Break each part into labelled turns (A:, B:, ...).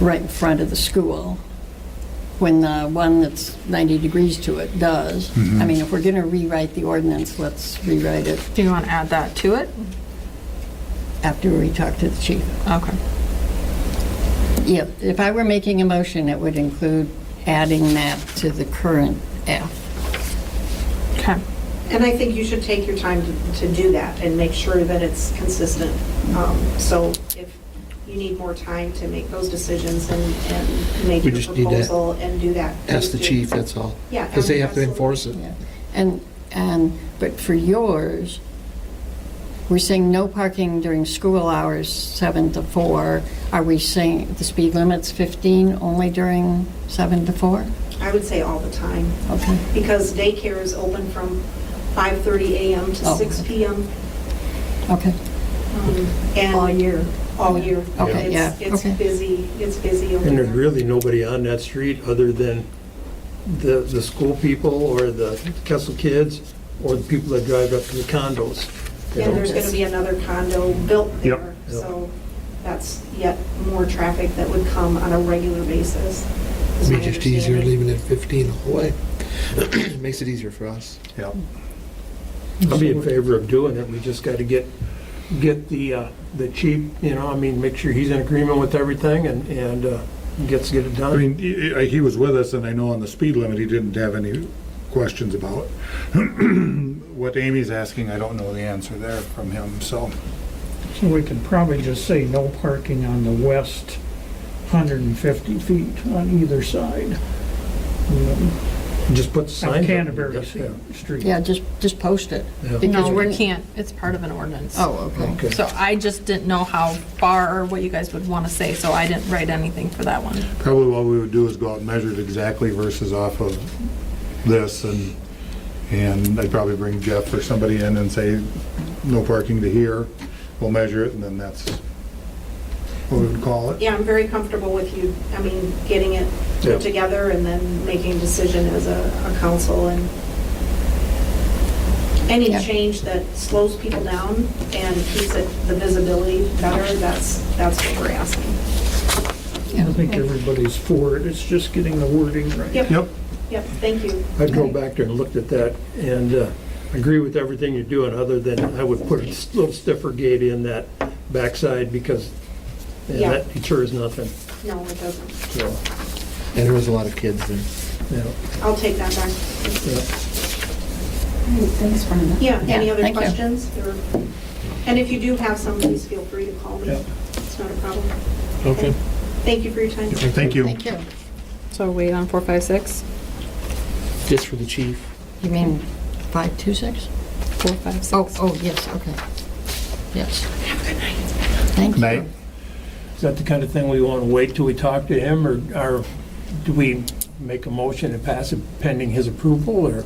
A: right in front of the school, when the one that's 90 degrees to it does. I mean, if we're going to rewrite the ordinance, let's rewrite it
B: Do you want to add that to it?
A: after we talk to the chief.
B: Okay.
A: Yeah, if I were making a motion, it would include adding that to the current F.
B: Okay.
C: And I think you should take your time to- to do that and make sure that it's consistent. Um, So if you need more time to make those decisions and and make
D: We
C: your
D: just need to
C: proposal and do that.
D: Ask the
C: please do.
D: chief, that's all.
C: Yeah,
D: Because they have to
C: absolutely.
D: enforce it.
A: Yeah. And, and, but for yours, we're saying no parking during school hours, 7 to 4. Are we saying the speed limit's 15 only during 7 to 4?
C: I would say all the time,
A: Okay.
C: because daycare is open from 5:30 a.m. to
A: Oh.
C: six p.m.
A: Okay,
C: um, and-
A: All year.
C: All year.
A: Okay,
C: It's-
A: yeah,
C: It's
A: okay.
C: busy, it's busy. over
E: And there's
C: there.
E: really nobody on that street other than the, the school people or the Kessel kids or the people that drive up to the condos. you
C: And
E: know?
C: there's going to be another condo built
E: Yep.
C: there, so that's yet more traffic that would come on a regular basis. is
D: It'd
C: my
D: be just easier
C: understanding.
D: leaving it at 15 the whole way. It Makes it easier for us.
E: Yeah. I'd be in favor of doing it, we just got to get, get the, uh, the chief, you know, I mean, make sure he's in agreement with everything and, and uh, gets, get it
F: I
E: done.
F: mean, he- he he was with us, and I know on the speed limit, he didn't have any questions about. What Amy's asking, I don't know the answer there from him, so.
G: So we could probably just say no parking on the west 150 feet on either side um,
E: Just put the signs
G: of
E: up.
G: Canterbury
E: Yeah.
G: Street.
A: yeah, just, just post it.
E: Yeah.
A: Because
B: No,
A: we're-
B: we can't. It's part of an ordinance.
A: Oh, okay.
E: Okay.
B: So I just didn't know how far or what you guys would want to say, so I didn't write anything for that one.
F: Probably what we would do is go out and measure it exactly versus off of this, and, and I'd probably bring Jeff or somebody in and say, no parking to here, we'll measure it, and then that's what we would call it.
C: Yeah, I'm very comfortable with you, I mean, getting it
E: Yeah.
C: put together and then making a decision as a, a council and any
A: Yeah.
C: change that slows people down and keeps it, the visibility better, that's, that's what we're asking.
G: I think everybody's for it, it's just getting the wording right.
C: Yep,
F: Yep,
C: yep, thank you.
E: I drove back there and looked at that and uh, agree with everything you're doing, other than I would put a little stiffer gate in that backside because man,
C: Yeah.
E: that deters nothing,
C: No, it doesn't.
E: so,
D: And there was a lot of kids there.
E: yeah.
C: I'll take that back.
H: Thanks, Brenda.
C: Yeah, any
A: Yeah,
C: other
A: thank you.
C: questions? Or- And if you do have some, please feel free to call me.
G: Yeah.
C: It's not a problem.
D: Okay.
C: Thank you for your time.
F: thank you.
A: Thank you.
B: So wait on four, five, six,
D: Just for the chief.
A: You mean 526?
B: four, five, six.
A: Oh, oh, yes, okay. Yes. Have a good night. Thank
F: Night.
A: you.
E: Is that the kind of thing we want to wait till we talk to him, or or do we make a motion and pass it pending his approval, or?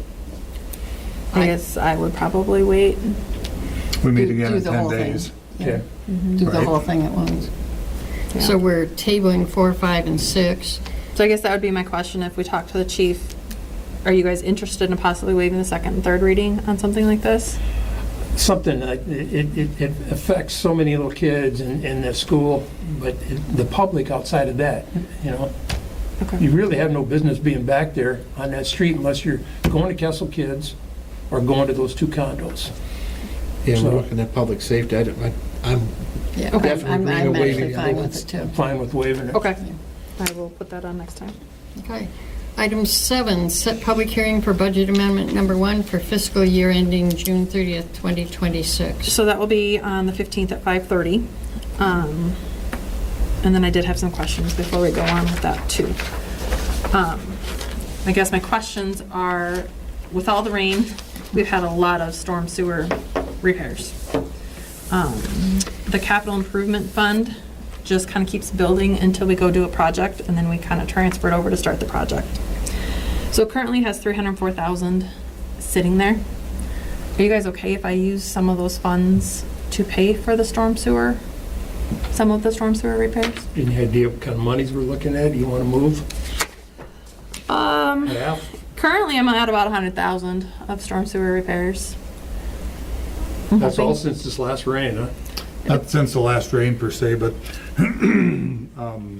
B: I guess I would probably wait.
F: We meet
A: Do-
F: again
A: do
F: in
A: the
F: 10
A: whole thing.
F: days.
E: Okay.
A: Do the
F: Right.
A: whole thing at once. So we're tabling four, five, and six.
B: So I guess that would be my question, if we talk to the chief, are you guys interested in possibly waiving the second and third reading on something like this?
E: Something, that- it it it affects so many little kids in in the school, but it- the public outside of that, you know?
B: Okay.
E: You really have no business being back there on that street unless you're going to Kessel Kids or going to those two condos.
D: Yeah,
E: So-
D: we're looking at public safety. I don't, I- I'm,
A: Yeah, I'm-
B: Okay.
A: I'm,
D: Definitely
A: I'm
D: bring a
A: actually
D: waving
A: fine with
D: ordinance.
A: it too.
E: Fine with waiving it.
B: Okay. I will put that on next time.
A: Okay. Item seven, set public hearing for budget amendment number one for fiscal year ending June 30th, 2026.
B: So that will be on the 15th at 5:30. Um, And then I did have some questions before we go on with that, too. Um, I guess my questions are, with all the rain, we've had a lot of storm sewer repairs. Um, The capital improvement fund just kind of keeps building until we go do a project, and then we kind of transfer it over to start the project. So it currently has 304,000 sitting there. Are you guys okay if I use some of those funds to pay for the storm sewer? Some of the storm sewer repairs?
E: Any idea what kind of monies we're looking at? You want to move?
B: Um,
E: Half?
B: currently I'm at about a hundred thousand of storm sewer repairs. I'm
E: That's all
B: hoping-
E: since this last rain, huh?
F: Not since the last rain per se, but um,